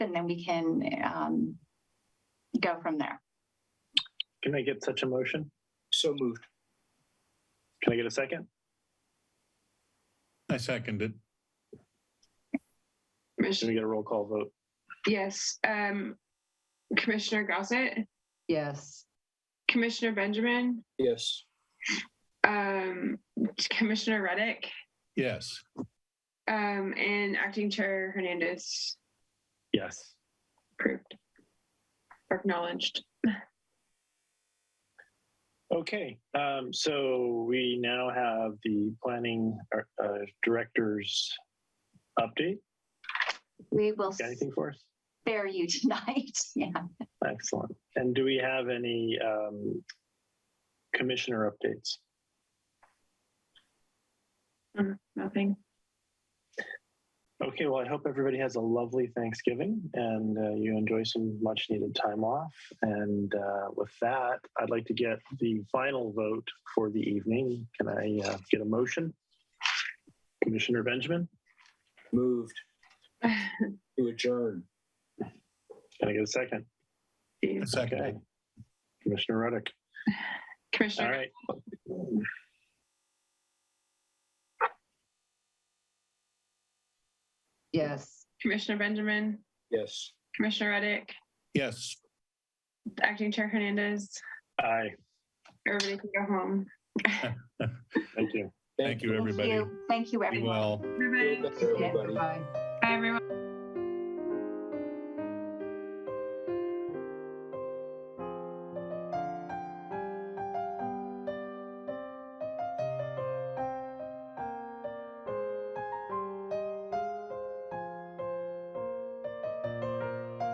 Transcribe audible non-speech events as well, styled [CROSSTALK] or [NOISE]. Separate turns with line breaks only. and then we can um, go from there.
Can I get such a motion?
So moved.
Can I get a second?
I second it.
Can
Commissioner,
we get a roll call vote?
yes, um, Commissioner Gossett,
Yes.
Commissioner Benjamin,
Yes.
um, Commissioner Reddick,
Yes.
um, and Acting Chair Hernandez
Yes.
approved. or Acknowledged.
Okay, um, so we now have the planning uh, uh, director's update.
We will
Got anything for us?
spare you tonight. [LAUGHS] Yeah.
Excellent. And do we have any um, commissioner updates?
Mm, Nothing. [SIGHS]
Okay, well, I hope everybody has a lovely Thanksgiving and uh, you enjoy some much needed time off. And uh, with that, I'd like to get the final vote for the evening. Can I uh, get a motion? Commissioner Benjamin,
Moved to adjourn.
can I get a second?
I second it.
Okay. Commissioner Reddick. All
Commissioner,
right.
Yes.
Commissioner Benjamin,
Yes.
Commissioner Reddick,
Yes.
Acting Chair Hernandez,
Aye.
everybody can go home.
Thank you.
Thank you, everybody.
Thank you, Thank you,
Be
everyone.
well.
Everybody,
Everybody.
Bye.
bye everyone.